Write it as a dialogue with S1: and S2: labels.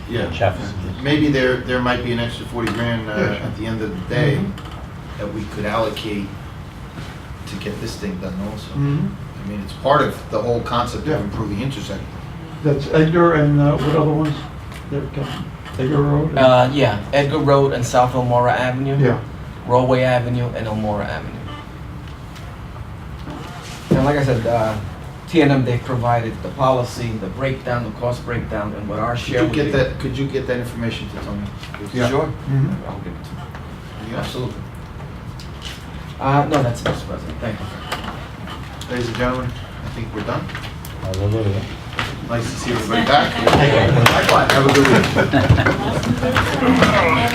S1: Yeah,
S2: Chefs.
S1: maybe there, there might be an extra 40 grand uh,
S3: Yeah, Mm-hmm. sure.
S1: at the end of the day that we could allocate to get this thing done also.
S3: Mhm.
S1: I mean, it's part of the whole concept
S3: Yeah.
S1: of improving intersection.
S3: That's Edgar and uh, what other ones? There, Kevin? Edgar Road? and-
S4: Uh, yeah, Edgar Road and South Elmora Avenue.
S3: Yeah,
S4: Rollway Avenue and Elmora Avenue. And like I said, uh, TNM, they provided the policy, the breakdown, the cost breakdown, and what our share
S1: Could
S4: would
S1: you
S4: be.
S1: get that, could you get that information to Tony? please?
S3: Yeah.
S4: Sure.
S3: Mhm.
S4: I'll give it to you.
S1: Yeah, Absolutely.
S4: Uh, no, that's it, Mr. President. Thank you.
S1: Ladies and gentlemen, I think we're done.
S2: Hallelujah.
S1: Nice to see everybody back. Likewise, have a good week.